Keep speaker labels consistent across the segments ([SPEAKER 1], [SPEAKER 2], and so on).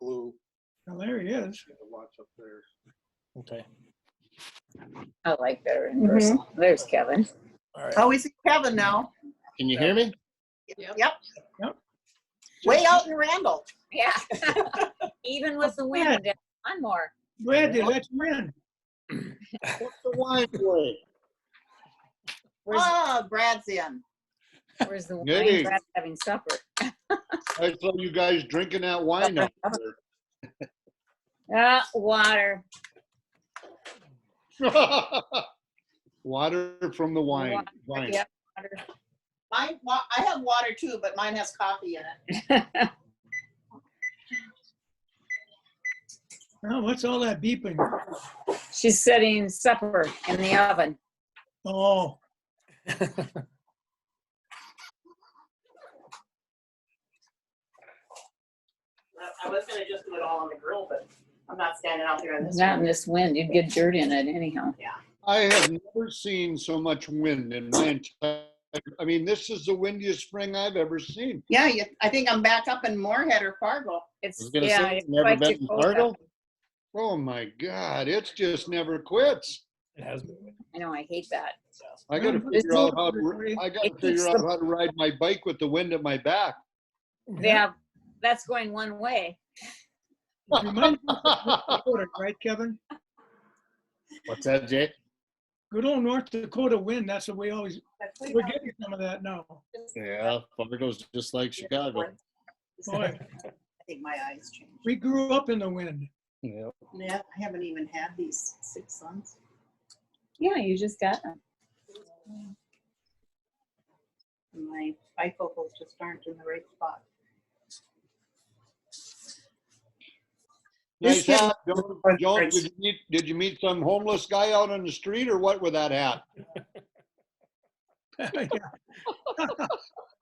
[SPEAKER 1] blue
[SPEAKER 2] Well, there he is.
[SPEAKER 1] in the lots up there.
[SPEAKER 3] Okay,
[SPEAKER 4] I like better
[SPEAKER 5] Mm-hmm.
[SPEAKER 4] in person. There's Kevin.
[SPEAKER 3] all right.
[SPEAKER 5] Oh, we see Kevin now.
[SPEAKER 3] Can you hear me?
[SPEAKER 5] Yep.
[SPEAKER 2] Yep.
[SPEAKER 5] Way out in Randall.
[SPEAKER 4] Yeah. Even with the wind, one more.
[SPEAKER 2] Glad they let you in.
[SPEAKER 3] What's the wine boy?
[SPEAKER 4] Where's,
[SPEAKER 5] Ah, Brad's in.
[SPEAKER 4] where's the
[SPEAKER 1] Good
[SPEAKER 4] wine?
[SPEAKER 1] evening.
[SPEAKER 4] Brad's having supper.
[SPEAKER 1] I saw you guys drinking that wine up
[SPEAKER 4] Ah, water.
[SPEAKER 1] there. Water from the wine. Wine.
[SPEAKER 4] Yeah.
[SPEAKER 5] Mine, wa- I have water too, but mine has coffee in it.
[SPEAKER 2] Now, what's all that beeping?
[SPEAKER 4] She's setting supper in the oven.
[SPEAKER 2] Oh,
[SPEAKER 5] I was gonna just do it all on the grill, but I'm not standing out there in
[SPEAKER 4] It's not in this wind. You'd get dirt in it anyhow.
[SPEAKER 1] I have never seen so much wind in my entire, I mean, this is the windiest spring I've ever seen.
[SPEAKER 5] Yeah, you, I think I'm back up in Moorhead or Fargo.
[SPEAKER 4] It's,
[SPEAKER 3] I was gonna say,
[SPEAKER 4] yeah.
[SPEAKER 3] I've
[SPEAKER 4] it's
[SPEAKER 3] never
[SPEAKER 4] quite
[SPEAKER 3] been
[SPEAKER 4] too
[SPEAKER 3] to
[SPEAKER 4] cold out.
[SPEAKER 3] Fargo.
[SPEAKER 1] Oh my God, it's just never quits.
[SPEAKER 3] It has been.
[SPEAKER 4] I know, I hate that.
[SPEAKER 1] I gotta
[SPEAKER 2] Mhm.
[SPEAKER 1] figure out how, to. I gotta
[SPEAKER 4] It keeps
[SPEAKER 1] figure out how to ride my bike with the wind at my back.
[SPEAKER 4] Yeah, that's going one way.
[SPEAKER 2] you might Dakota, right, Kevin?
[SPEAKER 3] What's that, Jay?
[SPEAKER 2] Good old North Dakota wind. That's what we always, we're getting some of that now.
[SPEAKER 3] Yeah, Fargo's just like Chicago.
[SPEAKER 2] Boy,
[SPEAKER 5] I think my eyes changed.
[SPEAKER 2] we grew up in the wind.
[SPEAKER 3] Yeah.
[SPEAKER 5] Yeah, I haven't even had these six sons.
[SPEAKER 4] Yeah, you just got them.
[SPEAKER 5] My bifocals just aren't in the right spot.
[SPEAKER 1] Nice
[SPEAKER 5] This kid-
[SPEAKER 1] hat. Joan, Joan, did you meet, did you meet some homeless guy out on the street or what with that hat?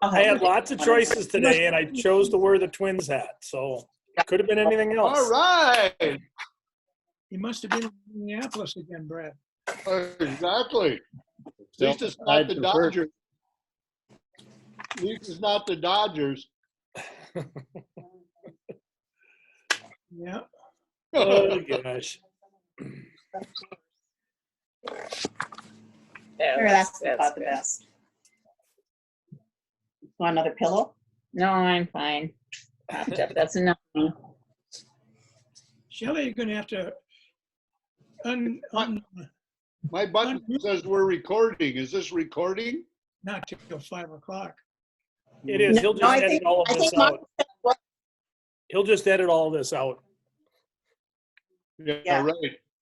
[SPEAKER 6] I had lots of choices today, and I chose to wear the Twins hat. So it could have been anything
[SPEAKER 1] All
[SPEAKER 6] else.
[SPEAKER 1] right,
[SPEAKER 2] He must have been in Minneapolis again, Brad.
[SPEAKER 1] exactly. At least it's
[SPEAKER 3] I
[SPEAKER 1] not the
[SPEAKER 3] prefer-
[SPEAKER 1] Dodgers. At least it's not the Dodgers.
[SPEAKER 2] Yeah.
[SPEAKER 6] Oh, gosh.
[SPEAKER 4] Yeah,
[SPEAKER 5] Sure, that's
[SPEAKER 4] that's
[SPEAKER 5] about the
[SPEAKER 4] good.
[SPEAKER 5] best. Want another pillow?
[SPEAKER 4] No, I'm fine. Propped up. That's enough.
[SPEAKER 2] Shelley, you're gonna have to un, un,
[SPEAKER 1] My button says we're recording. Is this recording?
[SPEAKER 2] not till five o'clock.
[SPEAKER 6] It is. He'll
[SPEAKER 5] No, I
[SPEAKER 6] just edit
[SPEAKER 5] think-
[SPEAKER 6] all
[SPEAKER 5] I
[SPEAKER 6] of this
[SPEAKER 5] think Mark-
[SPEAKER 6] out. He'll just edit all this out.
[SPEAKER 1] Yeah,
[SPEAKER 5] Yeah.
[SPEAKER 1] right.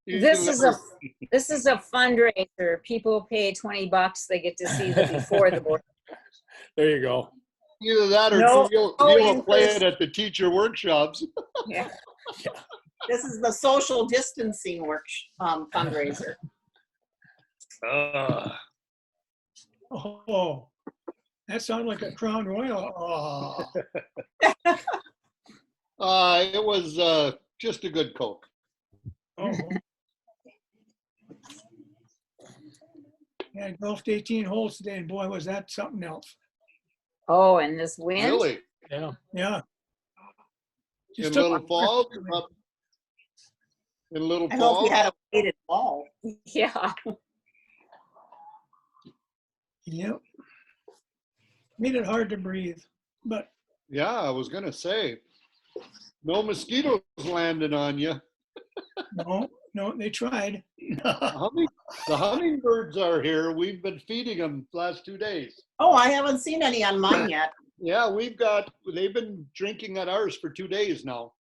[SPEAKER 1] You
[SPEAKER 4] This
[SPEAKER 1] can
[SPEAKER 4] is
[SPEAKER 1] never-
[SPEAKER 4] a, this is a fundraiser. People pay 20 bucks, they get to see the before the board.
[SPEAKER 6] There you go.
[SPEAKER 1] Either that or
[SPEAKER 4] No,
[SPEAKER 1] you'll,
[SPEAKER 4] no
[SPEAKER 1] you'll play
[SPEAKER 4] interest.
[SPEAKER 1] it at the teacher workshops.
[SPEAKER 4] Yeah.
[SPEAKER 5] This is the social distancing work um, fundraiser.
[SPEAKER 2] Oh, that sounded like a Crown Royal. Oh,
[SPEAKER 1] Uh, it was uh, just a good Coke.
[SPEAKER 2] oh. Yeah, I golfed 18 holes today, and boy, was that something else.
[SPEAKER 4] Oh, and this wind?
[SPEAKER 1] Really?
[SPEAKER 6] Yeah.
[SPEAKER 2] Yeah.
[SPEAKER 1] In
[SPEAKER 2] Just took-
[SPEAKER 1] Little Falls? up- In Little
[SPEAKER 5] I hope
[SPEAKER 1] Falls?
[SPEAKER 5] you had a weighted ball.
[SPEAKER 4] Yeah.
[SPEAKER 2] Yep. Made it hard to breathe, but
[SPEAKER 1] Yeah, I was gonna say. No mosquitoes landing on you.
[SPEAKER 2] no, no, they tried.
[SPEAKER 1] The humming- the hummingbirds are here. We've been feeding them last two days.
[SPEAKER 5] Oh, I haven't seen any on mine yet.
[SPEAKER 1] Yeah, we've got, they've been drinking at ours for two days now.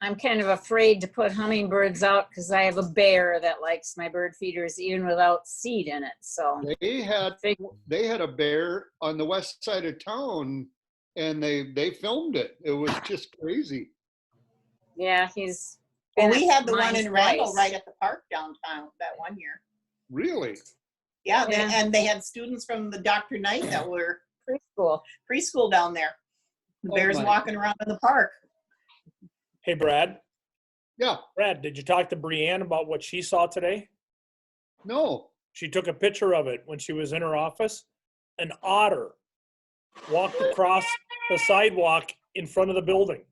[SPEAKER 4] I'm kind of afraid to put hummingbirds out because I have a bear that likes my bird feeders even without seed in it. So
[SPEAKER 1] They had,
[SPEAKER 4] Fig-
[SPEAKER 1] they had a bear on the west side of town and they, they filmed it. It was just crazy.
[SPEAKER 4] yeah, he's.
[SPEAKER 5] Well,
[SPEAKER 4] been
[SPEAKER 5] we
[SPEAKER 4] at
[SPEAKER 5] had the one
[SPEAKER 4] mine
[SPEAKER 5] in Randall
[SPEAKER 4] twice.
[SPEAKER 5] right at the park downtown that one year.
[SPEAKER 1] Really?
[SPEAKER 5] Yeah, they-
[SPEAKER 4] Yeah.
[SPEAKER 5] and they had students from the Dr. Knight that were
[SPEAKER 4] preschool.
[SPEAKER 5] preschool down there. The
[SPEAKER 1] Oh
[SPEAKER 5] bears
[SPEAKER 1] my.
[SPEAKER 5] walking around in the park.
[SPEAKER 6] Hey, Brad.
[SPEAKER 1] Yeah,
[SPEAKER 6] Brad, did you talk to Brianne about what she saw today?
[SPEAKER 1] no.
[SPEAKER 6] She took a picture of it when she was in her office. An otter walked across the sidewalk in front of the building.